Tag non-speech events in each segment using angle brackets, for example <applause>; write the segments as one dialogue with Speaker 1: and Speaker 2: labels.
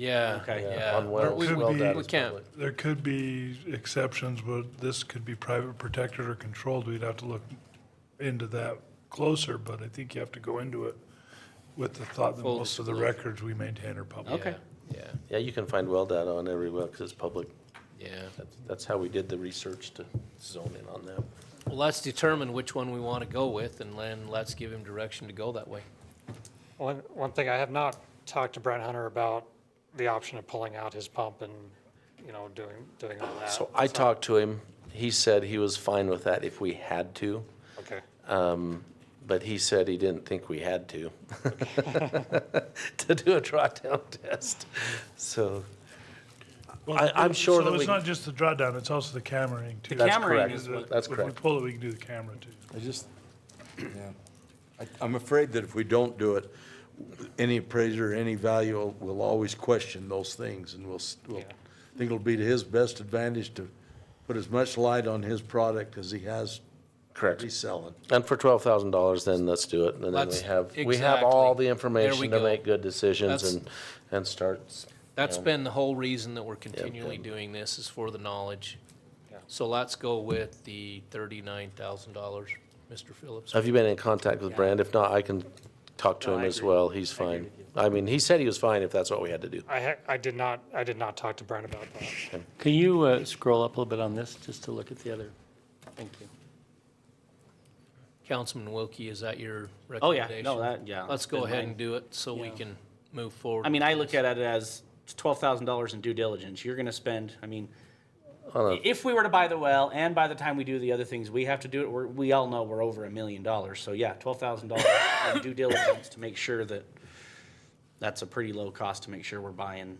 Speaker 1: Yeah,
Speaker 2: Okay.
Speaker 1: yeah.
Speaker 3: Unwell,
Speaker 1: We're- we-
Speaker 4: Could
Speaker 3: well
Speaker 4: be-
Speaker 3: done.
Speaker 1: We can't,
Speaker 4: There could be exceptions, but this could be private protected or controlled. We'd have to look into that closer, but I think you have to go into it with the thought that
Speaker 1: Full
Speaker 4: most of the
Speaker 1: disclosure.
Speaker 4: records we maintain are public.
Speaker 2: Okay.
Speaker 1: yeah,
Speaker 3: Yeah, you can find well data on every well, because it's public.
Speaker 1: yeah.
Speaker 3: That's- That's how we did the research to zone in on that.
Speaker 1: Well, let's determine which one we want to go with, and then let's give him direction to go that way.
Speaker 2: One, one thing, I have not talked to Brent Hunter about the option of pulling out his pump and, you know, doing, doing all that.
Speaker 3: So I talked to him. He said he was fine with that if we had to, um,
Speaker 2: Okay,
Speaker 3: but he said he didn't think we had to, <laughs> to do a drawdown <laughs> test. So I- I'm sure that
Speaker 4: So
Speaker 3: we-
Speaker 4: it's not just the drawdown, it's also the cameraing too.
Speaker 3: that's
Speaker 5: Cameraing
Speaker 3: correct.
Speaker 5: is what-
Speaker 3: That's
Speaker 4: If
Speaker 3: correct.
Speaker 4: we pull it, we can do the camera too.
Speaker 6: I just, yeah, I, I'm afraid that if we don't do it, any appraiser, any value will always question those things, and will, s- will,
Speaker 2: Yeah.
Speaker 6: I think it'll be to his best advantage to put as much light on his product as he has.
Speaker 3: Correct.
Speaker 6: Reselling.
Speaker 3: And for twelve thousand dollars, then let's do it, and then we
Speaker 1: Let's-
Speaker 3: have, we have
Speaker 1: exactly.
Speaker 3: all
Speaker 1: There
Speaker 3: the
Speaker 1: we
Speaker 3: information to
Speaker 1: go.
Speaker 3: make good decisions
Speaker 1: That's-
Speaker 3: and, and start.
Speaker 1: That's
Speaker 3: Yeah.
Speaker 1: been the whole reason that we're continually
Speaker 3: yeah.
Speaker 1: doing this, is for the knowledge.
Speaker 2: Yeah.
Speaker 1: So let's go with the thirty-nine thousand dollars, Mr. Phillips.
Speaker 3: Have you been in contact with Brand? If not, I can talk to
Speaker 5: No,
Speaker 3: him
Speaker 5: I
Speaker 3: as
Speaker 5: agree.
Speaker 3: well, he's
Speaker 5: I agree
Speaker 3: fine.
Speaker 5: with you.
Speaker 3: I mean, he said he was fine if that's what we had to do.
Speaker 2: I ha, I did not, I did not talk to Brent about that.
Speaker 5: Can you uh, scroll up a little bit on this, just to look at the other? Thank you.
Speaker 1: Councilman Wilkie, is that your
Speaker 5: Oh,
Speaker 1: recommendation?
Speaker 5: yeah, no, that, yeah.
Speaker 1: Let's go
Speaker 5: been
Speaker 1: ahead
Speaker 5: mine.
Speaker 1: and do it, so we
Speaker 5: Yeah.
Speaker 1: can move forward.
Speaker 5: I mean,
Speaker 1: with
Speaker 5: I
Speaker 1: this.
Speaker 5: look at it as twelve thousand dollars in due diligence. You're gonna spend, I mean,
Speaker 3: Hold on.
Speaker 5: if we were to buy the well, and by the time we do the other things we have to do, it, we're, we all know we're over a million dollars. So yeah, twelve thousand dollars
Speaker 1: <laughs>
Speaker 5: in due diligence to make sure that, that's a pretty low cost to make sure we're buying.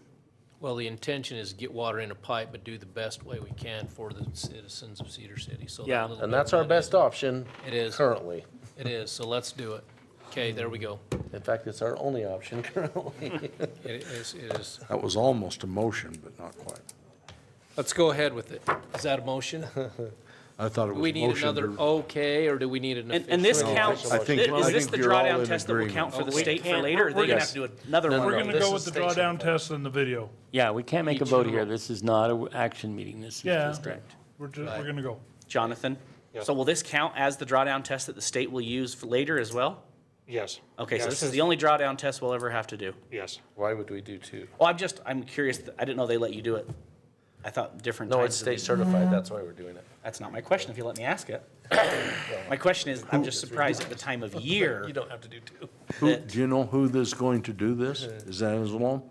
Speaker 1: Well, the intention is get water in a pipe, but do the best way we can for the citizens of Cedar City, so. that
Speaker 5: Yeah.
Speaker 1: little
Speaker 3: And
Speaker 1: bit
Speaker 3: that's
Speaker 1: of
Speaker 3: our
Speaker 1: money-
Speaker 3: best option.
Speaker 1: It is.
Speaker 3: Currently.
Speaker 1: It is, so let's do it. Okay, there we go.
Speaker 3: In fact, it's our only option <laughs> currently.
Speaker 1: It is, it is.
Speaker 6: That was almost a motion, but not quite.
Speaker 1: Let's go ahead with it. Is that a
Speaker 6: <laughs>
Speaker 1: motion?
Speaker 6: I thought it
Speaker 1: Do
Speaker 6: was
Speaker 1: we
Speaker 6: a
Speaker 1: need
Speaker 6: motion
Speaker 1: another
Speaker 6: to.
Speaker 1: okay, or do we need an
Speaker 5: And,
Speaker 1: official?
Speaker 5: and this
Speaker 6: No, I
Speaker 5: counts,
Speaker 6: think- I think-
Speaker 5: is
Speaker 6: I
Speaker 5: this
Speaker 6: think
Speaker 5: the
Speaker 6: we're all in
Speaker 5: drawdown test that will
Speaker 6: agreement.
Speaker 5: count for the
Speaker 1: Oh, We
Speaker 5: state for
Speaker 1: can't-
Speaker 5: later? They're gonna
Speaker 3: Yes.
Speaker 5: have to do another
Speaker 3: No,
Speaker 5: one.
Speaker 3: no,
Speaker 4: We're
Speaker 3: no,
Speaker 4: going to
Speaker 3: this
Speaker 4: go with
Speaker 3: is
Speaker 4: the
Speaker 3: state
Speaker 4: drawdown
Speaker 3: sample.
Speaker 4: test and the video.
Speaker 7: Yeah, we can't make a
Speaker 1: Each
Speaker 7: vote
Speaker 1: in a
Speaker 7: here.
Speaker 1: row.
Speaker 7: This is not an action meeting. This is
Speaker 4: Yeah.
Speaker 7: just a
Speaker 4: We're just, we're going to go.
Speaker 5: Jonathan, so will this count as the drawdown test that the state will use for later as well?
Speaker 2: Yes.
Speaker 5: Okay,
Speaker 2: Yeah,
Speaker 5: so this is the only drawdown test we'll ever have to do.
Speaker 2: Yes.
Speaker 3: Why would we do two?
Speaker 5: Well, I'm just, I'm curious, I didn't know they let you do it. I thought different
Speaker 3: No, it's
Speaker 5: times. of
Speaker 3: state
Speaker 5: the-
Speaker 3: certified, that's why we're doing it.
Speaker 5: That's not my question, if you let me ask it. My question is, I'm just surprised at the time of year.
Speaker 3: You don't have to do two.
Speaker 6: Who- Do you know who that's going to do this?
Speaker 1: Uh-huh.
Speaker 6: Is that Anzalone?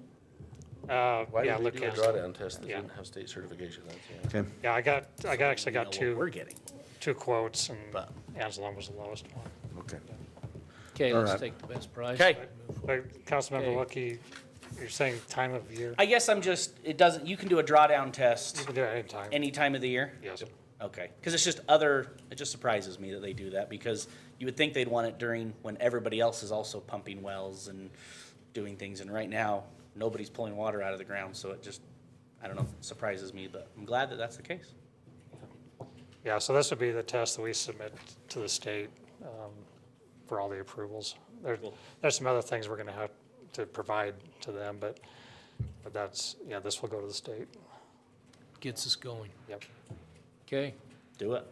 Speaker 2: Uh,
Speaker 3: Why
Speaker 2: yeah,
Speaker 3: did we
Speaker 2: Luke
Speaker 3: do a
Speaker 2: Campbell.
Speaker 3: drawdown test that
Speaker 2: Yeah.
Speaker 3: didn't have state certification? That's- yeah.
Speaker 6: Okay.
Speaker 2: Yeah, I got, I got, actually
Speaker 5: you know
Speaker 2: got
Speaker 5: what We're
Speaker 2: two,
Speaker 5: getting.
Speaker 2: two quotes and
Speaker 5: But-
Speaker 2: Anzalone was the lowest one.
Speaker 6: Okay.
Speaker 1: Okay,
Speaker 6: All
Speaker 1: let's
Speaker 6: right.
Speaker 1: take the best price.
Speaker 5: Okay.
Speaker 2: But Councilmember Lucky, you're saying time of year?
Speaker 5: I guess I'm just, it doesn't, you can do a drawdown
Speaker 2: You
Speaker 5: test
Speaker 2: can do it anytime.
Speaker 5: any time of the year?
Speaker 2: Yes.
Speaker 5: Okay, because it's just other, it just surprises me that they do that, because you would think they'd want it during, when everybody else is also pumping wells and doing things, and right now, nobody's pulling water out of the ground, so it just, I don't know, surprises me, but I'm glad that that's the case.
Speaker 2: Yeah, so this would be the test that we submit to the state um, for all the approvals. There- There's some other things we're going to have to provide to them, but, but that's, yeah, this will go to the state.
Speaker 1: Gets us going.
Speaker 2: Yep.
Speaker 1: Okay,
Speaker 5: Do it.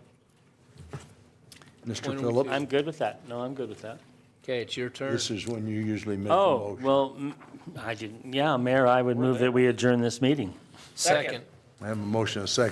Speaker 6: Mr.
Speaker 1: When we
Speaker 6: Phillips?
Speaker 7: I'm good with that. No, I'm good with that.
Speaker 1: okay, it's your turn.
Speaker 6: This is when you usually make a
Speaker 7: Oh,
Speaker 6: motion.
Speaker 7: well, mm, I didn't, yeah, Mayor, I would move that we adjourn this meeting.
Speaker 1: Second.
Speaker 6: I have a motion, a second.